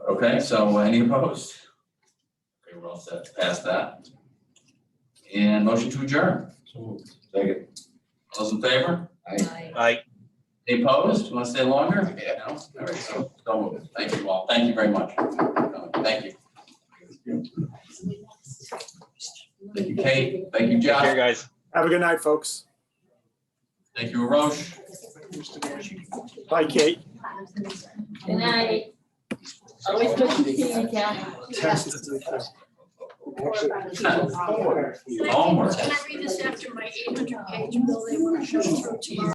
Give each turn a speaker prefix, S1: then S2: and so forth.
S1: Okay, so uh, any opposed? Okay, we're all set to pass that. And motion to adjourn.
S2: Second.
S1: All those in favor?
S3: Aye.
S4: Aye.
S1: Any opposed? Want to stay longer? Yeah. no? All right, so, so moved. Thank you all. Thank you very much. Thank you. Thank you, Kate. Thank you,
S4: Take care,
S1: Josh.
S4: guys.
S5: Have a good night, folks.
S1: Thank you, Roche.
S5: Bye, Kate.
S3: Good night. Always good to see you, Ken.
S1: Homework.
S6: Can I read this after my eight hundred page bill they want to show through tomorrow?